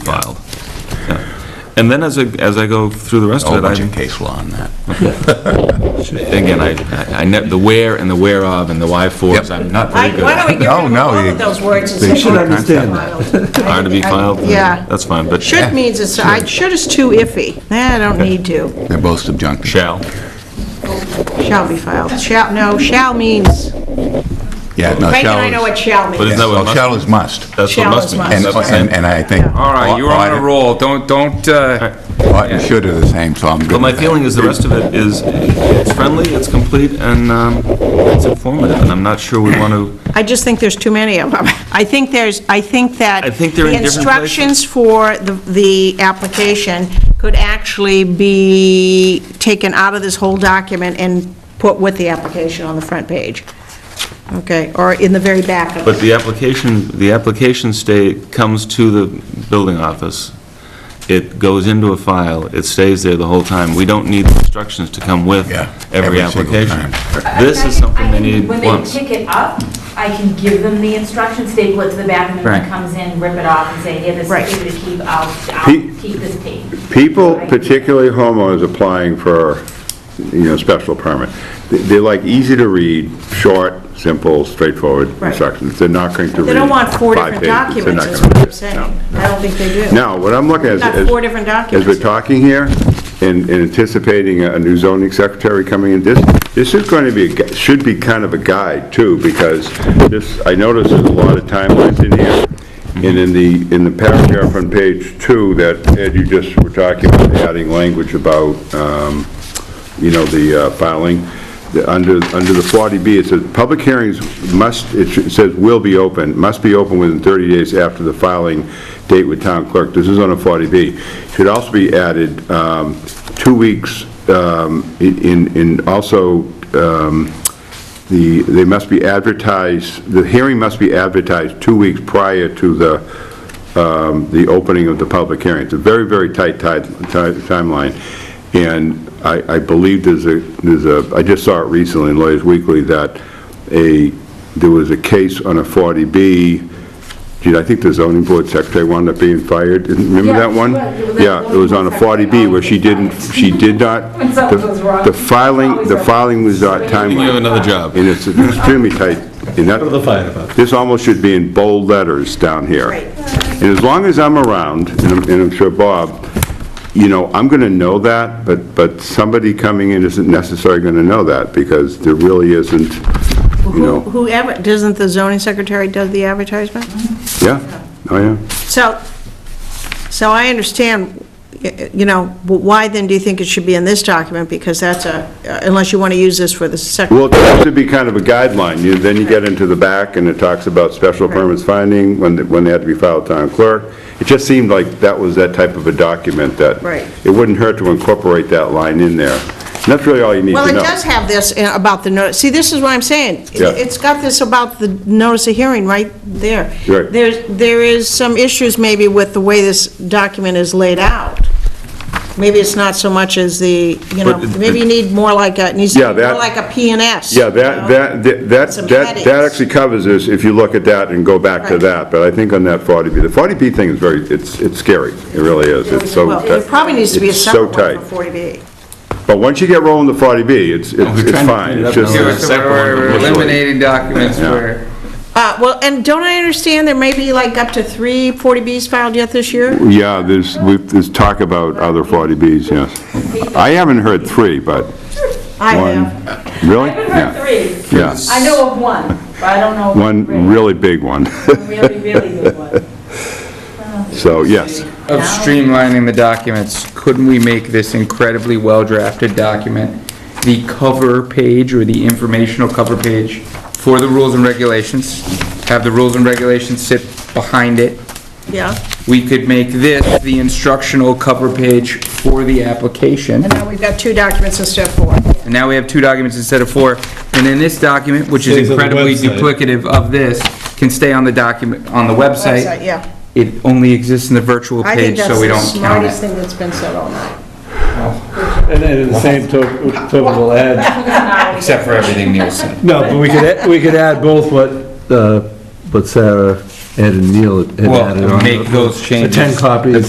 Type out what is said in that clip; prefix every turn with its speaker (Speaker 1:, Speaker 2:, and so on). Speaker 1: filed. Yeah. And then as I, as I go through the rest
Speaker 2: A whole
Speaker 1: Oh, of it,
Speaker 2: bunch of
Speaker 1: I,
Speaker 2: case law on that.
Speaker 1: again, I, I- I, ne- the where and the where of and the why fors, I'm not very
Speaker 3: Why
Speaker 1: good
Speaker 3: why don't
Speaker 1: at.
Speaker 3: we get rid
Speaker 2: No,
Speaker 3: of
Speaker 2: no,
Speaker 3: all
Speaker 2: you-
Speaker 3: of those words and
Speaker 2: they
Speaker 3: say...
Speaker 2: should
Speaker 3: are to be
Speaker 2: understand
Speaker 3: filed?
Speaker 1: Are to be filed?
Speaker 3: Yeah.
Speaker 1: That's fine, but
Speaker 3: Should means it's, I, should is too iffy. Nah, I don't need to.
Speaker 2: They're both subjunctive.
Speaker 1: shall.
Speaker 3: Shall be filed. Shall, no, shall means,
Speaker 2: Yeah, no,
Speaker 3: Frank and
Speaker 2: shall
Speaker 3: I
Speaker 2: is-
Speaker 3: know what shall
Speaker 1: But
Speaker 3: means.
Speaker 1: isn't that
Speaker 2: Well,
Speaker 1: what
Speaker 2: shall
Speaker 1: must,
Speaker 2: is must.
Speaker 1: that's what
Speaker 3: Shall
Speaker 1: must
Speaker 3: is
Speaker 1: means?
Speaker 3: must.
Speaker 2: And,
Speaker 1: That's the
Speaker 2: and
Speaker 1: same.
Speaker 2: and I think.
Speaker 3: Yeah.
Speaker 4: All right, you're on a
Speaker 2: ought-
Speaker 4: roll, don't, don't, uh,
Speaker 2: Ought and should are the same, so I'm good
Speaker 1: But my
Speaker 2: with that.
Speaker 1: feeling is the rest of it is, it's friendly, it's complete, and um, it's informative, and I'm not sure we want to,
Speaker 3: I just think there's too many of them. I think there's, I think that...
Speaker 1: I think they're in different
Speaker 3: The instructions for the, the application could actually be taken out of this whole document and put with the application on the front page. Okay, or in the very back of it.
Speaker 1: but the application, the application state comes to the building office, it goes into a file, it stays there the whole time. We don't need instructions to come with
Speaker 2: Yeah,
Speaker 1: every
Speaker 2: every single
Speaker 1: application.
Speaker 2: time.
Speaker 1: This is something they need
Speaker 5: When they
Speaker 1: once.
Speaker 5: pick it up, I can give them the instructions, staple it to the back, and then
Speaker 4: Right.
Speaker 5: he comes in, rip it off, and say, here, this
Speaker 3: Right.
Speaker 5: is for you to keep, I'll,
Speaker 6: Pe-
Speaker 5: I'll keep this page.
Speaker 6: People,
Speaker 5: Right?
Speaker 6: particularly homeowners applying for, you know, special permit, th- they're like easy to read, short, simple, straightforward
Speaker 3: Right.
Speaker 6: instructions. They're not going to read.
Speaker 3: They don't want four
Speaker 6: five
Speaker 3: different
Speaker 6: pages. They're
Speaker 3: documents,
Speaker 6: not
Speaker 3: is
Speaker 6: gonna
Speaker 3: what
Speaker 6: do
Speaker 3: I'm
Speaker 6: it.
Speaker 3: saying.
Speaker 6: No.
Speaker 3: I don't think they do.
Speaker 6: Now, what I'm looking at is...
Speaker 3: Got
Speaker 6: is-
Speaker 3: four different
Speaker 6: As
Speaker 3: documents.
Speaker 6: we're talking here, and and anticipating a a new zoning secretary coming in, this, this is going to be, a gu- should be kind of a guide, too, because this, I noticed there's a lot of timelines in here, and in the, in the paragraph on page two that, Ed, you just were talking about adding language about, um, you know, the uh, filing, the- under, under the 40B, it says, "Public hearings must," it should- it says, "will be open, must be open within 30 days after the filing date with town clerk." This is on a 40B. Should also be added, um, two weeks, um, in- in, in also, um, the, they must be advertised, the hearing must be advertised two weeks prior to the, um, the opening of the public hearing. It's a very, very tight ti- ti- timeline, and I I believe there's a, there's a, I just saw it recently in Lawyers Weekly that a, there was a case on a 40B, gee, I think the zoning board secretary wound up being fired, remember
Speaker 5: Yeah,
Speaker 6: that one?
Speaker 5: right, it was a
Speaker 6: Yeah, it was on a
Speaker 5: zoning board secretary
Speaker 6: 40B where she
Speaker 5: always
Speaker 6: didn't,
Speaker 5: gets
Speaker 6: she did not,
Speaker 5: When something goes wrong,
Speaker 6: the filing,
Speaker 5: always
Speaker 6: the
Speaker 5: a-
Speaker 6: filing was not timelined.
Speaker 1: You have another job.
Speaker 6: And it's extremely tight. And that, this almost should be in bold letters down here.
Speaker 3: Right.
Speaker 6: And as long as I'm around, and I'm- and I'm sure Bob, you know, I'm going to know that, but, but somebody coming in isn't necessarily going to know that, because there really isn't, you
Speaker 3: Who-
Speaker 6: know,
Speaker 3: Whoever, doesn't the zoning secretary do the advertisement?
Speaker 6: yeah, oh, yeah.
Speaker 3: So, so I understand, y- you know, but why then do you think it should be in this document? Because that's a, uh, unless you want to use this for the second.
Speaker 6: Well, it has to be kind of a guideline. You, then you get into the back, and it talks about special permits finding, when, they- when they had to be filed town clerk. It just seemed like that was that type of a document that.
Speaker 3: Right.
Speaker 6: It wouldn't hurt to incorporate that line in there. And that's really all you need to know.
Speaker 3: Well, it does have this uh, about the notice, see, this is what I'm saying. It-
Speaker 6: Yeah.
Speaker 3: It's got this about the notice of hearing right there.
Speaker 6: Right.
Speaker 3: There's, there is some issues maybe with the way this document is laid out. Maybe it's not so much as the, you know,
Speaker 1: But it-
Speaker 3: maybe you need more like a, it needs to
Speaker 6: Yeah,
Speaker 3: be more
Speaker 6: that-
Speaker 3: like a P and S.
Speaker 6: Yeah,
Speaker 3: you know?
Speaker 6: that, that, that,
Speaker 3: Some
Speaker 6: that, that
Speaker 3: headings.
Speaker 6: that actually covers this, if you look at that and go back to
Speaker 3: Right.
Speaker 6: that. But I think on that 40B, the 40B thing is very, it's, it's scary. It really is. It's so.
Speaker 3: Well, there
Speaker 6: tight.
Speaker 3: probably needs to be a
Speaker 6: It's so
Speaker 3: separate one
Speaker 6: tight.
Speaker 3: for 40B.
Speaker 6: But once you get rolling the 40B, it's, it's it's fine. It's just-
Speaker 4: yeah, so we're we're eliminating documents
Speaker 6: Yeah.
Speaker 4: where,
Speaker 3: Uh, Well, and don't I understand there may be like up to three 40Bs filed yet this year?
Speaker 6: Yeah, there's, we've- there's talk about other 40Bs, yes. I haven't heard three, but
Speaker 3: I
Speaker 6: one,
Speaker 3: have.
Speaker 6: really?
Speaker 5: I haven't heard three.
Speaker 6: Yeah,
Speaker 5: I know of one, but I don't know. of three.
Speaker 6: one really big one,
Speaker 5: One Really, really good one.
Speaker 6: so, yes.
Speaker 4: of streamlining the documents, couldn't we make this incredibly well-drafted document the cover page or the informational cover page for the rules and regulations? Have the rules and regulations sit behind it?
Speaker 3: Yeah.
Speaker 4: We could make this the instructional cover page for the application.
Speaker 3: And now we've got two documents instead of four.
Speaker 4: And now we have two documents instead of four. And then this document, which is
Speaker 7: Stays on the
Speaker 4: incredibly
Speaker 7: website.
Speaker 4: duplicative of this, can stay on the document, on the
Speaker 3: Website,
Speaker 4: website.
Speaker 3: yeah.
Speaker 4: It only exists in the virtual
Speaker 3: I think
Speaker 4: page,
Speaker 3: that's
Speaker 4: so we
Speaker 3: the
Speaker 4: don't count
Speaker 3: smartest
Speaker 4: it.
Speaker 3: thing that's been said all night.
Speaker 7: And then in the same to- token, we'll add,
Speaker 4: Except for everything Neil said.
Speaker 7: no, but we could, add- we could add both what, uh, what Sarah
Speaker 4: Ed and Neil had added on.
Speaker 7: Well, make those
Speaker 4: The
Speaker 7: changes.
Speaker 4: 10 copies.
Speaker 7: that they